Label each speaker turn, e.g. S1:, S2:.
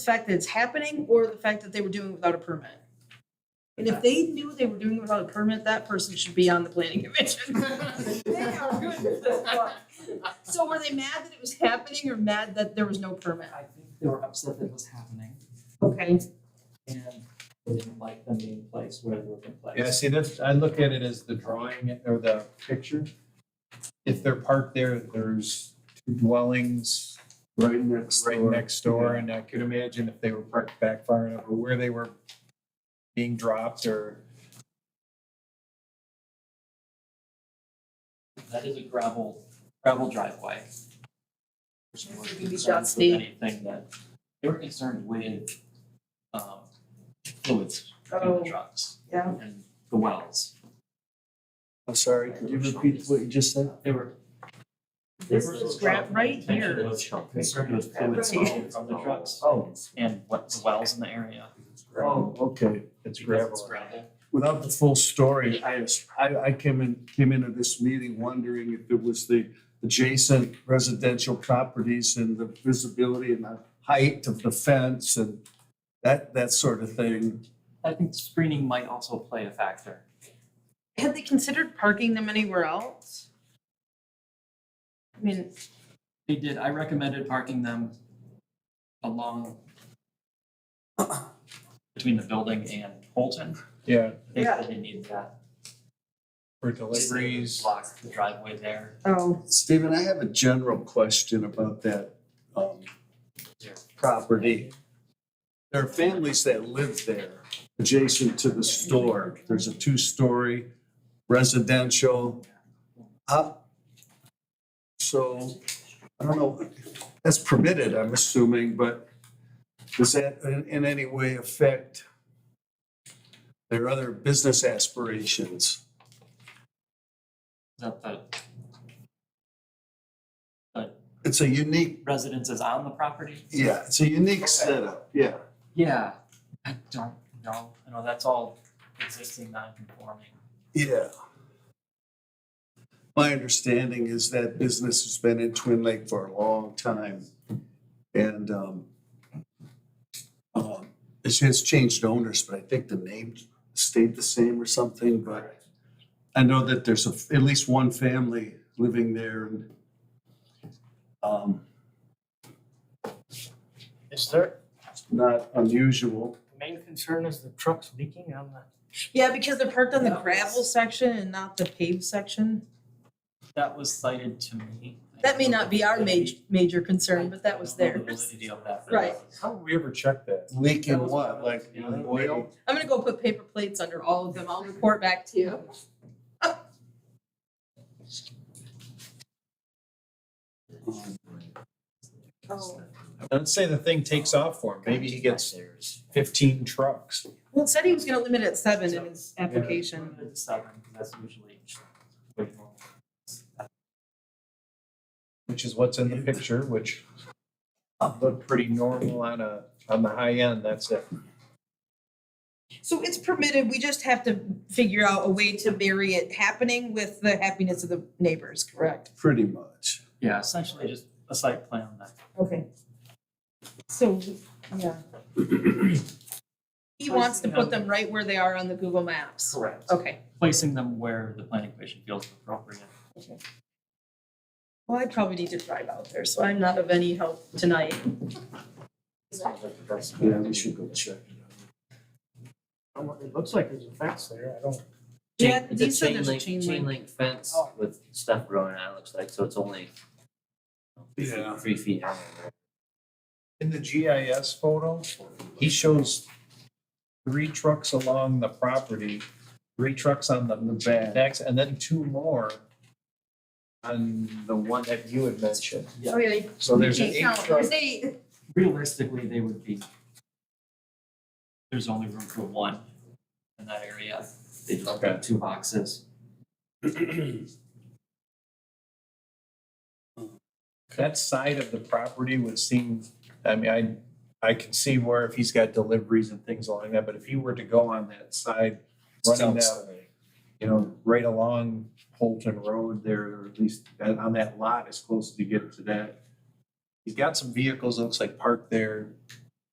S1: the fact that it's happening or the fact that they were doing it without a permit. And if they knew they were doing it without a permit, that person should be on the planning commission. They are good at this stuff. So were they mad that it was happening or mad that there was no permit?
S2: I think they were upset that it was happening
S1: Okay.
S2: and they didn't like them being placed where they were being placed.
S3: Yeah, see, this, I look at it as the drawing or the picture. If they're parked there, there's two dwellings
S4: Right next
S3: right
S4: door.
S3: next door, and I could imagine if they were parked back far enough or where they were being dropped or.
S2: That is a gravel, gravel driveway. They were
S1: It could be
S2: concerned with
S1: dusty.
S2: anything that, they were concerned with, um, fluids in the
S1: Oh,
S2: trucks
S1: yeah.
S2: and the wells.
S4: I'm sorry, could you repeat what you just said?
S2: They were. they
S1: This
S2: were
S1: is grab right
S2: concerned
S1: here.
S2: with- Concerned with fluids
S1: Right.
S2: flowing from the trucks
S4: Oh,
S2: and what, the wells in the area.
S4: oh, okay.
S3: It's
S2: because it's
S3: gravel.
S2: gravel.
S4: Without the full story, I, I, I came in, came into this meeting wondering if it was the adjacent residential properties and the visibility and the height of the fence and that, that sort of thing.
S2: I think screening might also play a factor.
S1: Had they considered parking them anywhere else? I mean,
S2: They did, I recommended parking them along between the building and Holton.
S3: Yeah,
S2: They
S1: Yeah.
S2: said they needed that.
S3: for
S2: Just they
S3: deliveries.
S2: Block the driveway there.
S1: oh,
S4: Stephen, I have a general question about that, um, property. There are families that live there, adjacent to the store. There's a two-story residential. Up. So, I don't know, that's permitted, I'm assuming, but does that in, in any way affect their other business aspirations?
S2: Is that the
S4: It's a unique,
S2: residences on the property?
S4: yeah, it's a unique setup, yeah.
S2: Yeah. I don't know. I know that's all existing non-conforming.
S4: Yeah. My understanding is that business has been in Twin Lake for a long time. And um, um, it has changed owners, but I think the name stayed the same or something, but I know that there's a- at least one family living there and um,
S5: Is there,
S4: not unusual.
S5: the main concern is the trucks leaking on the,
S1: yeah, because they're parked on the gravel section and not the paved section.
S2: That was cited to me. I
S1: That may
S2: don't know
S1: not
S2: the
S1: be our major,
S2: validity-
S1: major concern, but that was
S2: I don't know the
S1: theirs.
S2: validity of that. but
S1: Right.
S2: that was-
S3: How did we ever check that?
S4: Leaking what, like
S2: Yeah.
S4: oil?
S1: I'm gonna go put paper plates under all of them. I'll report back to you. Oh.
S3: Let's say the thing takes off for him. Maybe he gets fifteen trucks.
S1: Well, it said he was gonna limit it at seven in his application.
S2: Seven, 'cause that's usually way more.
S3: which is what's in the picture, which looked pretty normal on a, on the high end, that's it.
S1: So it's permitted, we just have to figure out a way to bury it happening with the happiness of the neighbors, correct?
S4: Pretty much.
S2: Yeah, essentially just a site plan that.
S1: Okay. So, yeah. He wants to put them right where they are on the Google Maps.
S2: Correct.
S1: Okay.
S2: Placing them where the planning commission feels appropriate.
S1: Well, I probably need to drive out there, so I'm not of any help tonight.
S4: Yeah, we should go check it out.
S5: it looks like there's a fence there, I don't.
S1: Yeah,
S6: Chain- it's
S1: he said
S6: chain
S1: there's a
S6: link-
S1: chain link.
S6: link fence
S5: Oh.
S6: with stuff growing out, it looks like, so it's only
S4: Yeah.
S6: three feet high. right?
S3: In the GIS photo, he shows three trucks along the property, three trucks on the next, and then two more on the one that you had mentioned.
S1: Oh, yeah.
S3: So there's
S1: you
S3: an
S1: can't
S3: eight
S1: count.
S3: truck,
S1: There's eight.
S2: Realistically, they would be. There's only room for one in that area. They just
S3: Okay.
S2: have two boxes.
S3: that side of the property would seem, I mean, I, I can see where if he's got deliveries and things along that, but if he were to go on that side, running that you know, right along Holton Road there, or at least that- on that lot as close as you get to that. He's got some vehicles, looks like parked there,